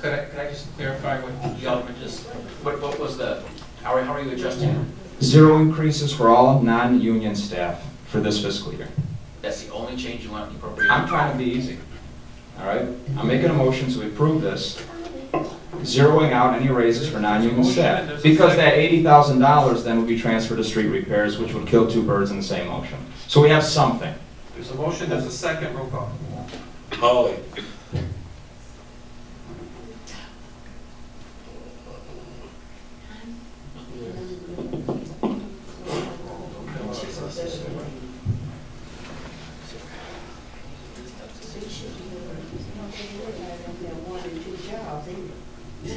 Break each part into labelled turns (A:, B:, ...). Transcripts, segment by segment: A: Could I, could I just clarify what Alderman just, what, what was the, how are, how are you adjusting?
B: Zero increases for all non-union staff for this fiscal year.
A: That's the only change you want in the
B: I'm
A: appropriation?
B: trying to be easy, all right? I'm making a motion to approve this, zeroing out any raises for non-union staff. Because that eighty thousand dollars then would be transferred to street repairs, which would kill two birds in the same motion. So we have something.
C: There's a motion, there's a second, roll call.
D: Holly,
E: one and two jobs,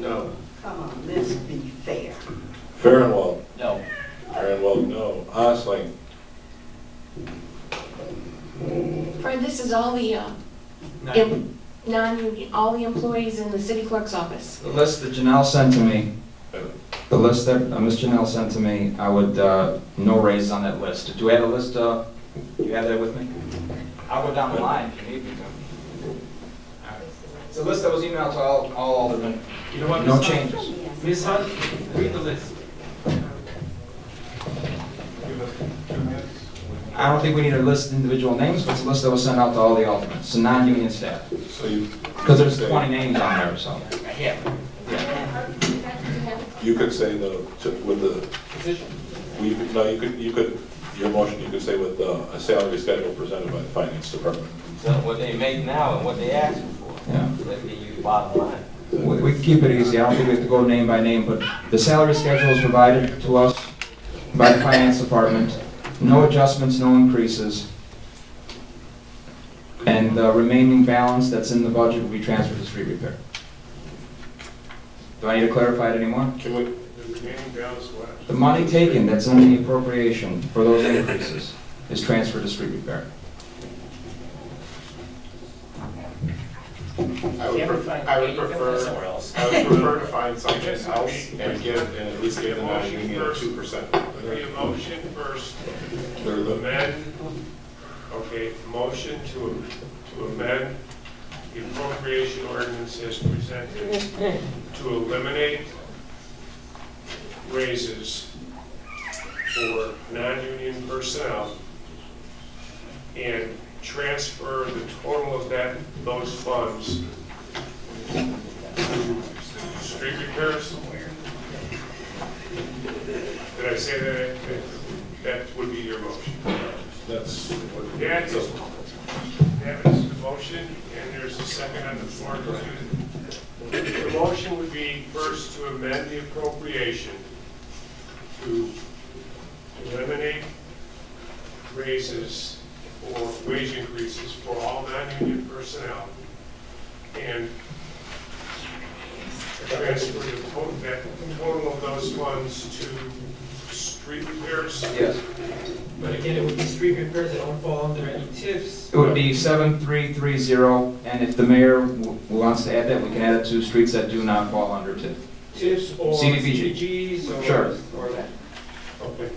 D: no.
E: Come on, let's be fair.
D: Farinwald,
A: No,
D: Farinwald, no. Osling,
F: Fred, this is all the, um,
C: Now,
F: em- non, all the employees in the city clerk's office.
B: The list that Janelle sent to me,
D: uh,
B: the list that uh, Ms. Janelle sent to me, I would, uh, no raises on that list. Do we have a list, uh, you have that with me? I'll go down the line if you need me to. All right. It's a list that was emailed to all, all aldermen.
C: You know what?
B: No
C: Ms. Hunt?
B: changes.
C: Ms. Hunt, read the list.
B: I don't think we need to list individual names, but it's a list that was sent out to all the aldermen, so non-union staff.
D: so you.
B: Because there's 20 names on there or something.
A: I have.
D: You could say no to, with the,
C: Position.
D: we, no, you could, you could, your motion, you could say with uh, a salary schedule presented by the finance department.
G: So what they make now and what they asking for.
B: Yeah.
G: That'd be you bottom line.
B: We we can keep it easy, I don't think we have to go name by name, but the salary schedule is provided to us by the finance department. No adjustments, no increases. And the remaining balance that's in the budget will be transferred to street repair. Do I need to clarify it anymore?
D: Can we,
B: The money taken that's in the appropriation for those increases is transferred to street repair.
H: I
A: You
H: would
A: have to
H: prefer,
A: find-
H: I would
A: you have to find somewhere
H: prefer,
A: else.
H: I would prefer to find something else and give, and at least give the non-union a two percent.
I: The motion first,
D: they're the-
I: amend, okay, motion to, to amend the appropriation ordinance as presented to eliminate raises for non-union personnel and transfer the total of that, those funds to street repairs. Did I say that? That would be your motion.
D: that's, what-
I: That is, that is the motion, and there's a second on the floor. The motion would be first to amend the appropriation to eliminate raises or wage increases for all non-union personnel and transfer the total, that total of those funds to street repairs.
B: Yes.
C: But again, it would be street repairs that don't fall under any tips.
B: It would be 7330, and if the mayor w- wants to add that, we can add it to streets that do not fall under TIF.
C: Tips or
B: CDBG.
C: CDBGs or.
B: Sure.
C: Or that. Okay.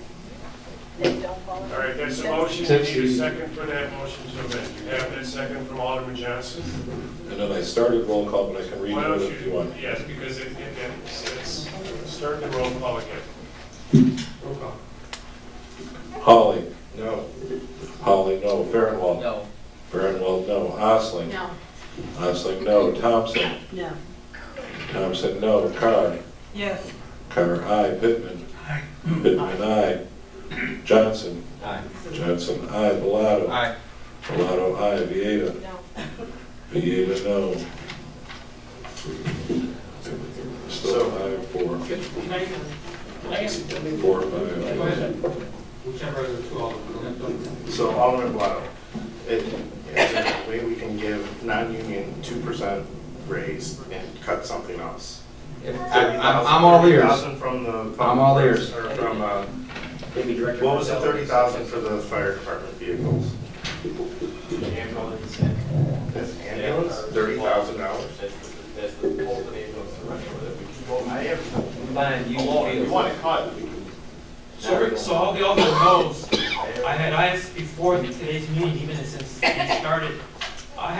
I: All right, that's a motion, you need a second for that motion to amend. You have that second from Alderman Johnson?
D: and then I started roll call, but I can read
I: Why don't
D: it if you want.
I: you, yes, because it, it, it's, start the roll call again.
C: Roll call.
D: Holly. No. Holly, no. Farinwald.
A: No,
D: Farinwald, no. Osling.
F: No.
D: Osling, no. Thompson.
E: No.
D: Thompson, no. Carr.
E: Yes.
D: Carr, aye. Pittman. Pittman, aye. Johnson.
G: Aye.
D: Johnson, aye. Bellato.
A: Aye.
D: Bellato, aye. Vieta.
F: No.
D: Vieta, no. Still aye, four,
C: Good. Can I-
A: Can I ask,
D: four,
C: Go
D: five.
C: ahead. Whichever of the two Alderman.
H: So Alderman Blotto, it, is there a way we can give non-union two percent raise and cut something else?
B: I'm I'm all ears.
H: 30,000 from the.
B: I'm all ears.
H: Or from, uh,
A: maybe Director.
H: what was the
A: Marzella.
H: thirty thousand for the fire department vehicles?
G: Ambulance and.
H: That's ambulance, thirty thousand dollars?
G: That's the- That's the whole thing of the running with it.
H: I have,
G: We keep Buying used
H: you
G: vehicles.
H: want to cut, we can
C: So, every- so all the aldermen knows, I had asked before today's meeting, even since we started,